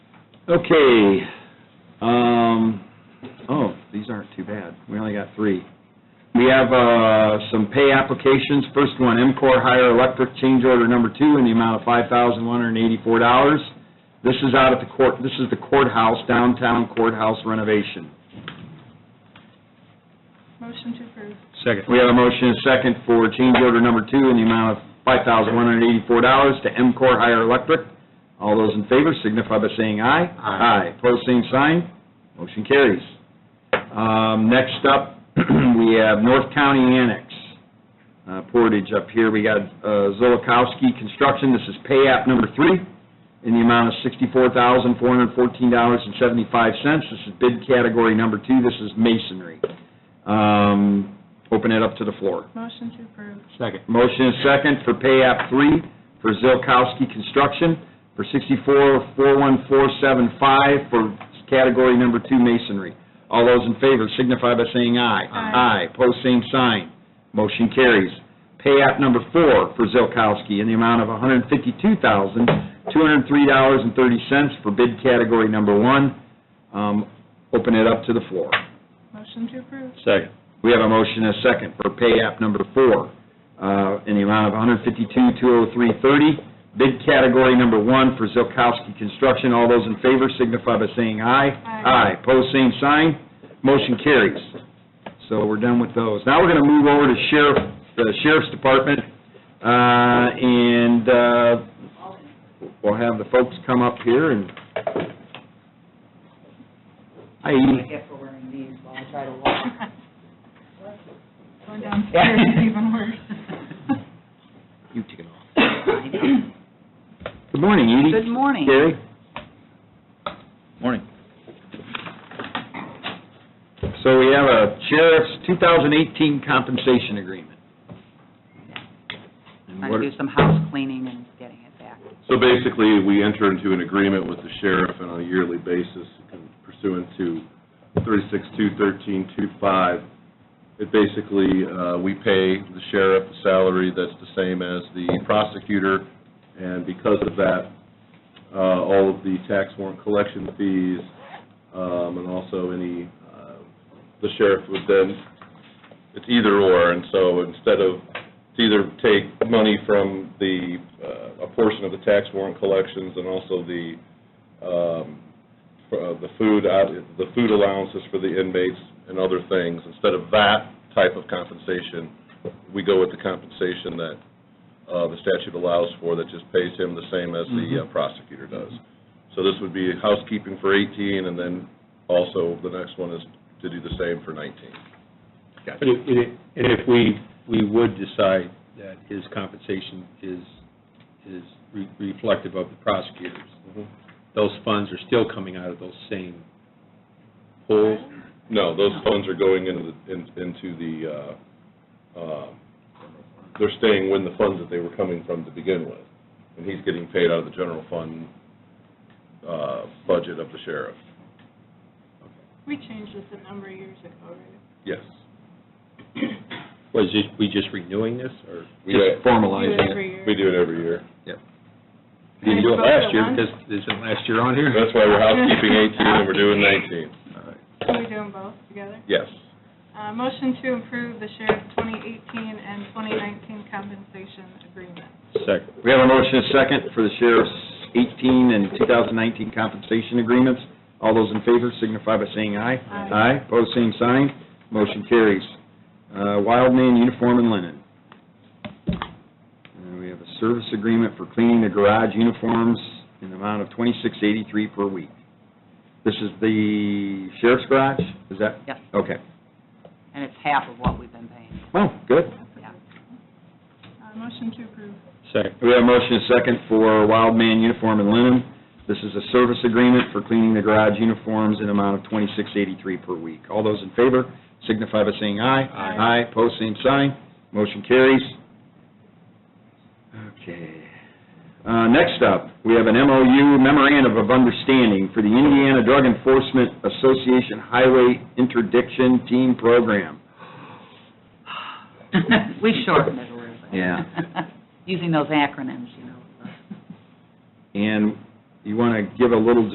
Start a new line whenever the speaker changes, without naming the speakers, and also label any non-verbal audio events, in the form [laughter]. Okay, um, oh, these aren't too bad. We only got three. We have, uh, some pay applications. First one, MCOR Higher Electric Change Order Number Two in the amount of five thousand one hundred and eighty-four dollars. This is out at the court, this is the courthouse, downtown courthouse renovation.
Motion to approve.
Second.
We have a motion and a second for change order number two in the amount of $5,184 to MCOR Higher Electric. All those in favor signify by saying aye.
Aye.
Aye, pose same sign, motion carries. Um, Next up, [clears throat] we have North County Annex, uh, Portage up here. We got uh, Zolakowski Construction, this is pay app number three, in the amount of $64,414.75. This is bid category number two, this is masonry. Um, Open it up to the floor.
Motion to approve.
Second.
Motion is second for pay app three for Zilkowski Construction for sixty-four, four one four seven five for category number two masonry. All those in favor signify by saying aye.
Aye.
Aye, pose same sign. Motion carries. Pay app number four for Zilkowski in the amount of one hundred fifty-two thousand, two hundred three dollars and thirty cents for bid category number one. Um, Open it up to the floor.
Motion to approve.
Second.
We have a motion and a second for pay app number four, uh, in the amount of 152,203.30, bid category number one for Zilkowski Construction. All those in favor signify by saying aye.
Aye.
Aye, pose same sign, motion carries. So we're done with those. Now we're going to move over to sheriff, the sheriff's department, uh, and uh, we'll have the folks come up here and... Hi,
I
Edie.
get for wearing these while I try to walk.
Going downstairs is
[laughs]
even worse.
You take it off. Good morning, Edie.
[laughs] Good morning.
Gary?
Morning.
So we have a sheriff's 2018 compensation agreement. And
Trying
what-
to do some house cleaning and getting it back.
So basically, we enter into an agreement with the sheriff and on a yearly basis pursuant to 36-213-25. It basically, uh, we pay the sheriff a salary that's the same as the prosecutor, and because of that, uh, all of the tax warrant collection fees, um, and also any, uh, the sheriff would then, it's either or, and so instead of to either take money from the, uh, a portion of the tax warrant collections and also the, um, for, uh, the food, out- the food allowances for the inmates and other things, instead of that type of compensation, we go with the compensation that uh, the statute allows for, that just pays him the same as the uh, prosecutor does. So this would be housekeeping for 18, and then also the next one is to do the same for 19.
But if- and if- and if we, we would decide that his compensation is, is re- reflective of the prosecutors, those funds are still coming out of those same pools?
No, those funds are going into, the- in- into the, uh, um, they're staying when the funds that they were coming from to begin with. And he's getting paid out of the general fund uh, budget of the sheriff.
We changed this a number of years ago, right?
Yes.
Was it, we just renewing this, or?
We
Just
Do
do
formalize
it
it.
every year.
we do it every year.
We didn't do
I
it
spoke to
last year,
one-
because isn't last year on here?
That's why we're housekeeping 18 and we're doing 19.
Can we do them both together?
Yes.
Uh, motion to approve the sheriff's 2018 and 2019 compensation agreement.
Second.
We have a motion and a second for the sheriff's 18 and 2019 compensation agreements. All those in favor signify by saying aye.
Aye.
Aye, pose same sign, motion carries. Uh, Wild man uniform and linen. And we have a service agreement for cleaning the garage uniforms in the amount of 2683 per week. This is the sheriff's garage, is that?
Yep.
Okay,
And it's half of what we've been paying,
well, good.
yeah.
Uh, motion to approve.
Second.
We have a motion and a second for Wild Man Uniform and Linen. This is a service agreement for cleaning the garage uniforms in amount of twenty-six eighty-three per week. All those in favor signify by saying aye.
Aye.
Aye, pose same sign, motion carries. Okay. Uh, Next up, we have an MOU memorandum of understanding for the Indiana Drug Enforcement Association Highway Interdiction Team Program.
We shortened it a little bit. [laughs]
Yeah.
Using those acronyms, you know.
And you want to give a little